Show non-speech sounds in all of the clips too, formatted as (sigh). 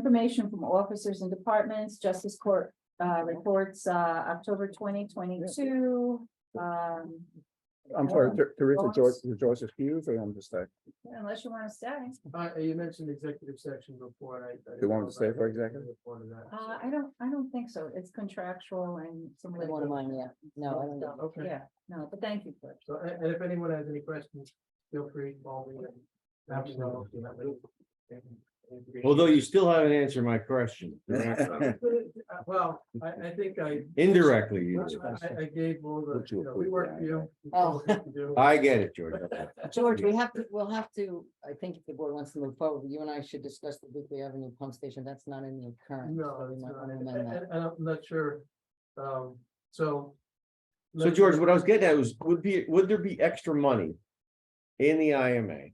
information from officers and departments, justice court, uh, reports, uh, October twenty twenty-two. Um, I'm sorry, Ter- Teresa, George, George excused or I'm just like, unless you wanna stay, Uh, you mentioned executive section before, and I. You want to stay for executive? uh, I don't, I don't think so, it's contractual and some. One of mine, yeah, no, I don't know. litigation. Okay, Yeah, no, but thank you, George. so, and, and if anyone has any questions, feel free, call me. and- Although you still haven't answered my question. directly. uh, Well, I, I think I, Indirectly, you did. I, I gave all the, Put you you a know, we quick work for you. you Oh. told us what to do. I get it, George. George, we have to, we'll have to, I think if the board wants to move forward, you and I should discuss the Weekly Avenue pump station. That's not in the current. (laughs) No, so we it's might not, wanna and, amend that. and I'm not sure, um, so. So George, what I was getting at was, would be, would there be extra money? In the IMA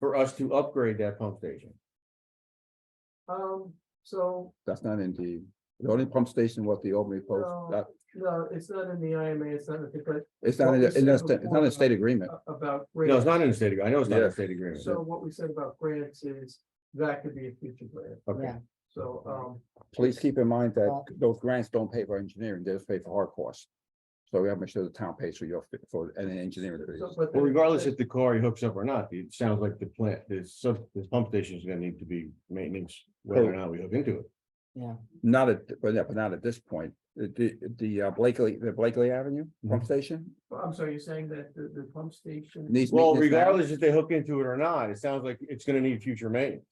for us to upgrade that pump station? Um, so, that's not in the, the only pump station was the Albany No. Post. That, no, it's not in the IMA, it's not, in the- but it's not, in the- it's not, it's not a state agreement. a- about. No, it's not in the state, agree- I know it's not in Yeah. the state agreement. So what we said about grants is that could be a future grant, Okay, Yeah. so, um, Please keep in mind that those grants don't pay for engineering, they just pay for hard costs. So we have to make sure the town pays for your, for any engineering. so- fees. but. well, regardless if the car hooks up or not, it sounds like the plant, this sub, this pump station is gonna need to be maintenance, Oh. whether or not we hook into it. Not at, but yeah, but not at this point. The- The, the uh, Blakely, the Blakely Avenue pump station I'm sorry, you're saying that the, the pump station, needs. Well, maintenance now? regardless if they hook into it or not, it sounds like it's gonna need future maintenance.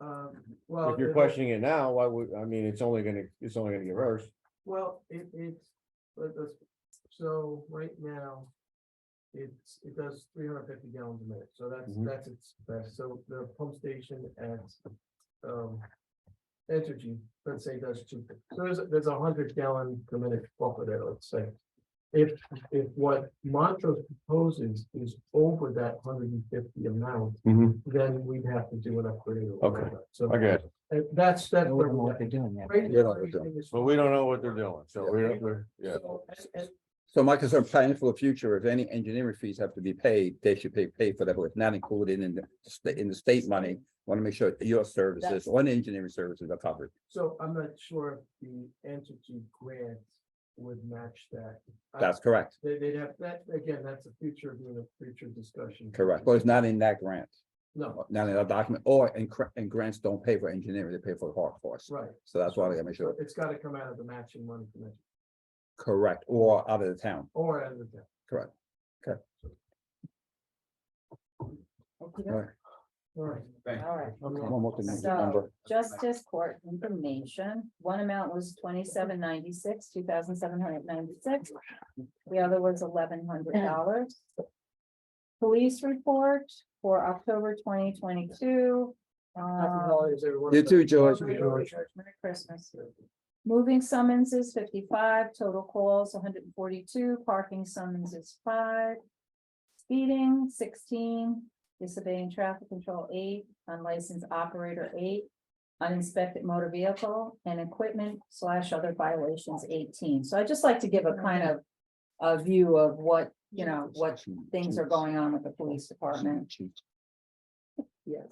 um, well. Oh, If you're it- questioning it now, why would, I mean, it's only gonna, it's only gonna get worse. Well, it, it's, but that's, so right now. It's, it does three hundred fifty gallons a minute, so that's, Mhm. that's its best, so the pump station at. Um, Entergy, let's say does two, so there's, there's a hundred gallon per minute buffer there, let's say. If, if what Montrose proposes is over that hundred and fifty amount, Mm-hmm. then we'd have to do an upgrade. or Okay, whatever. So. I get uh, That's, that's. I where wouldn't know we're what at. they're doing yet. Right Yeah, now, like that. everything is- But we don't know what they're doing, so we don't, we're, yeah. So, and- and So my concern planning for the future, if any engineering fees have to be paid, they should pay, pay for that, but it's not included in the, sta- in the state money. Want to make sure your services, on engineering services are covered. So I'm not sure if the entity grant would match that. I- That's correct, They, they'd have, that, again, that's a future, being a future discussion. correct. But it's not in that grant, No, not in that document, or, and, cr- and grants don't pay for engineering, they pay for hard costs. right, So that's why they gotta make so sure, it's gotta come out of the matching money from it, correct, or out of the town, or out of the. correct. All Okey-doke. right. All right. All right. One more thing, So- number, Justice Court information, one amount was twenty-seven ninety-six, two thousand seven hundred ninety-six. The other was eleven hundred dollars. Police report for October twenty twenty-two. Happy holidays, everyone. You too, George. Happy holidays. Merry Christmas. Moving summonses fifty-five, total calls hundred and forty-two, parking summonses five. Speeding sixteen, disobeying traffic control eight, unlicensed operator eight. Uninspected motor vehicle and equipment slash other violations eighteen. So I'd just like to give a kind of. A view of what, you know, what things are going on with the police department.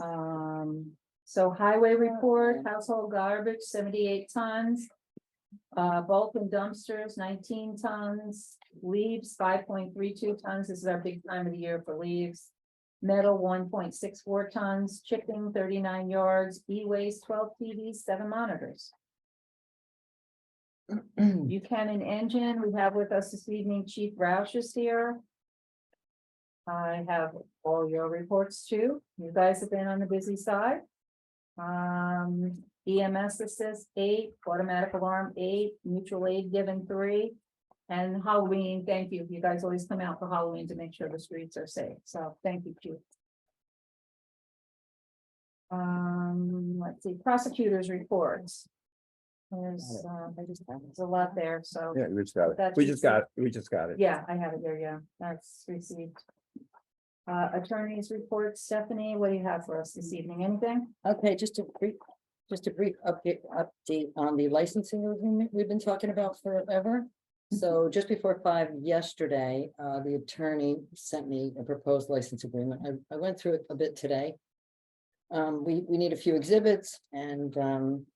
Um, so highway report, household garbage, seventy-eight tons. Uh, bulk and dumpsters, nineteen tons, leaves, five point three two tons, this is our big time of the year for leaves. Metal, one point six four tons, chipping, thirty-nine yards, e-waste, twelve TVs, seven monitors. Uh, Mm. Buchanan Engine, we have with us this evening Chief Roush is here. I have all your reports too. You guys have been on the busy side. Um, EMS assist eight, automatic alarm eight, mutual aid given three. And Halloween, thank you. You guys always come out for Halloween to make sure the streets are safe. So thank you, Chief. Um, let's see, prosecutors reports. There's, um, there's a lot there, so. Yeah, we just got it, That's we just easy. got, it. we just got it. Yeah, I have it there, yeah, that's received. Uh, attorney's report, Stephanie, what do you have for us this evening, anything? (clears throat) Okay, just a brief, just a brief update, update on the licensing agreement we've been talking about forever. Mm-hmm. So just before five yesterday, uh, the attorney sent me a proposed license agreement. I, I went through it a bit today. um, we, we need a few exhibits and, um,